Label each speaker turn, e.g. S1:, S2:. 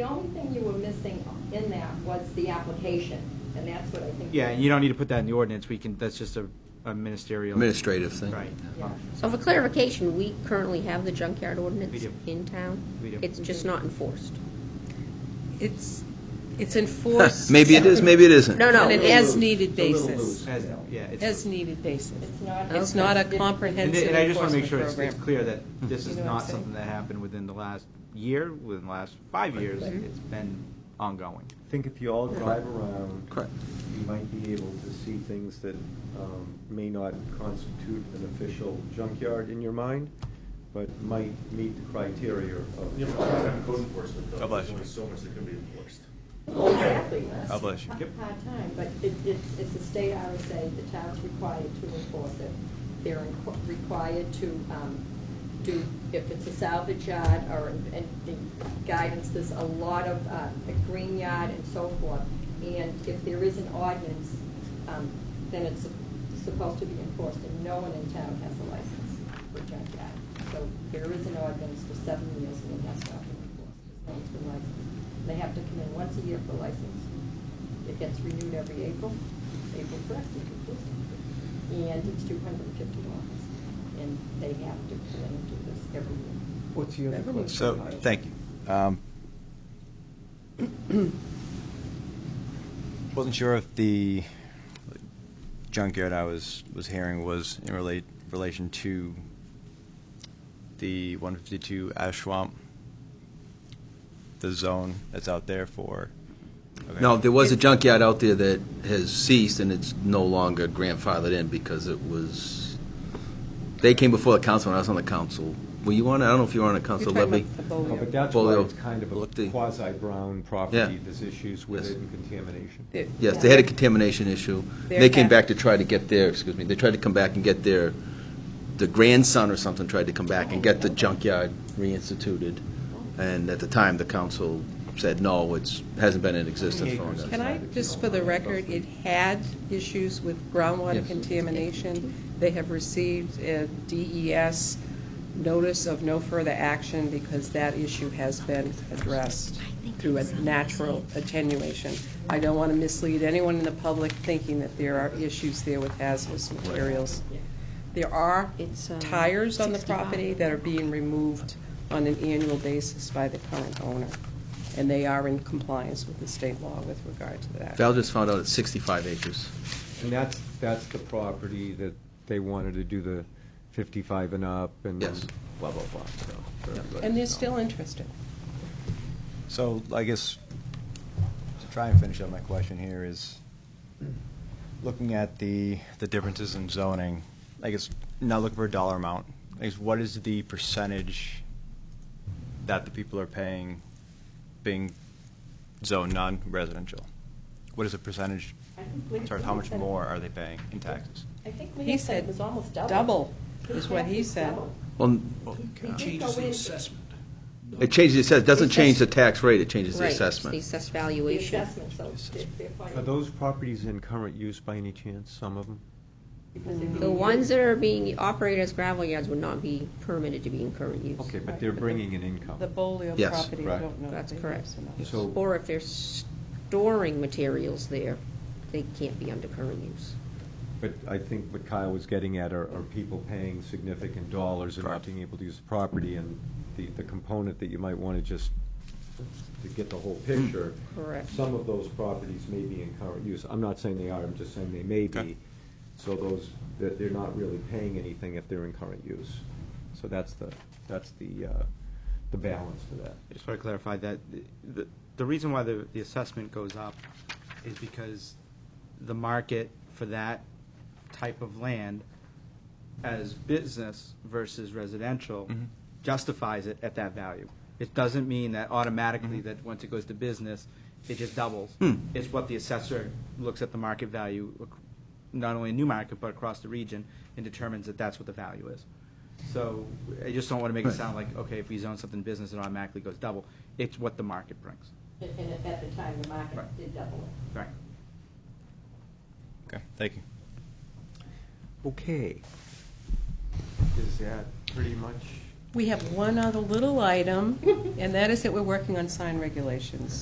S1: The only thing you were missing in that was the application, and that's what I think.
S2: Yeah, and you don't need to put that in the ordinance, we can, that's just a a ministerial.
S3: Administrative thing.
S2: Right.
S1: Yeah.
S4: So for clarification, we currently have the junkyard
S2: We
S4: ordinance
S2: do.
S4: in town?
S2: We do.
S4: It's just not enforced?
S5: It's, it's enforced.
S3: Maybe it is, maybe it isn't.
S4: No, no.
S5: On an
S4: it is.
S5: as-needed basis.
S2: As, yeah. it's-
S5: As-needed basis.
S1: It's not-
S5: It's not a
S1: Okay.
S2: And
S5: comprehensive
S2: and I just want to
S5: enforcement
S2: make sure it's it's clear
S5: program.
S2: that this
S5: You
S2: is
S5: know what I'm
S2: not
S5: saying?
S2: something that happened within the last year, within the last five years, it's been ongoing.
S6: think if you all drive around.
S3: Correct.
S6: You might be able to see things that um, may not constitute an official junkyard in your mind, but might meet the criteria of.
S7: You know, we don't have code enforcement, though.
S8: God bless you.
S7: There's only so much that can be enforced.
S1: Exactly.
S8: God bless you.
S2: Yep.
S1: Part-time, but it, it's, it's a state RSA, the town's required to enforce it. They're inqu- required to, um, do, if it's a salvage yard or, and the guidance, there's a lot of, uh, a green yard and so forth. And if there is an ordinance, um, then it's supposed to be enforced, and no one in town has a license for junkyard. So there is an ordinance for seven years, and it has not been enforced. No one's been licensed. They have to come in once a year for license. It gets renewed every April, April first, April first. And it's two hundred and fifty dollars, and they have to come in and do this every year.
S6: What's the other question?
S8: So, thank you. Um, Wasn't sure if the junkyard I was, was hearing was in relate, relation to the 152 Ashwamp, the zone that's out there for. okay.
S3: No, there was a junkyard out there that has ceased, and it's no longer grandfathered in because it was, they came before the council, and I was on the council. Were you on it? I don't know if you were on the council,
S5: You're talking
S3: Levy.
S5: about the
S6: No,
S5: Bolio.
S6: But that's
S3: Well,
S6: why
S3: they'll
S6: it's kind of a
S3: look the-
S6: quasi-brown
S3: Yeah.
S6: property, there's issues with
S3: Yes.
S6: it and contamination.
S5: It-
S3: Yes, they had a contamination issue. They came
S5: They're-
S3: back to try to get their, excuse me, they tried to come back and get their, the grandson or something tried to come back and get the junkyard reinstituted. And at the time, the council said, no, it's, hasn't been in existence for long.
S6: Acres.
S5: Can I, just for the record, it had issues with groundwater
S3: Yes.
S5: contamination. They have received a DES notice of no further action because that issue has been addressed through a natural attenuation. I don't want to mislead anyone in the public thinking that there are issues there with hazardous materials. There are
S4: It's, um,
S5: tires on the
S4: 65.
S5: property that are being removed on an annual basis by the current owner, and they are in compliance with the state law with regard to that.
S3: Val just found out it's 65 acres.
S6: And that's, that's the property that they wanted to do the 55 and up and
S3: Yes.
S6: blah, blah, blah. so for everybody
S5: And they're
S6: to know.
S5: still interested.
S8: So I guess to try and finish up my question here is, looking at the, the differences in zoning, I guess, not looking for a dollar amount, I guess, what is the percentage that the people are paying being zoned non-residential? What is the percentage,
S1: I think Leah
S8: sorry, how much
S1: said-
S8: more are they paying in taxes?
S1: I think
S5: He
S1: Leah said
S5: said
S1: it was almost double.
S5: double, is what he said.
S3: Well,
S1: He changes the assessment.
S3: it changes, it says, doesn't change the tax rate, it changes the
S4: Right, it's
S3: assessment.
S4: The assessed
S1: The
S4: valuation.
S1: assessment, so they're- they're fine.
S6: Are those properties in current use by any chance, some of them?
S1: Because they're
S4: The
S1: being
S4: ones
S1: used.
S4: that are being operated as gravel yards would not be permitted to be in current use.
S6: Okay, but they're bringing in income.
S5: The Bolio
S3: Yes,
S5: property, I
S6: right.
S5: don't know. if
S4: That's
S5: they
S4: correct.
S5: use or
S6: So-
S5: not.
S4: Or if they're storing materials there, they can't be under current use.
S6: But I think what Kyle was getting at are, are people paying significant dollars and not
S3: Correct.
S6: being able to use the property, and the, the component that you might want to just, to get the whole picture.
S4: Correct.
S6: Some of those properties may be in current use. I'm not saying they are, I'm just saying they may be. So those, that they're not really paying anything if they're in current use. So that's the, that's the, uh, the balance to that.
S2: I just want to clarify that the- the, the reason why the, the assessment goes up is because the market for that type of land as business versus residential justifies it at that value. It doesn't mean that automatically that once it goes to business, it just doubles. It's what the assessor looks at the market value, ac- not only in New Market, but across the region, and determines that that's what the value is. So I just don't want to make it sound like, okay, if we zone something business, it automatically goes double. It's what the market brings.
S1: And- And at the time, the market
S2: Right.
S1: did double it.
S2: Right.
S8: Okay, thank you.
S6: Okay. Is that pretty much
S5: We have one other little item, and that is that we're working on sign regulations.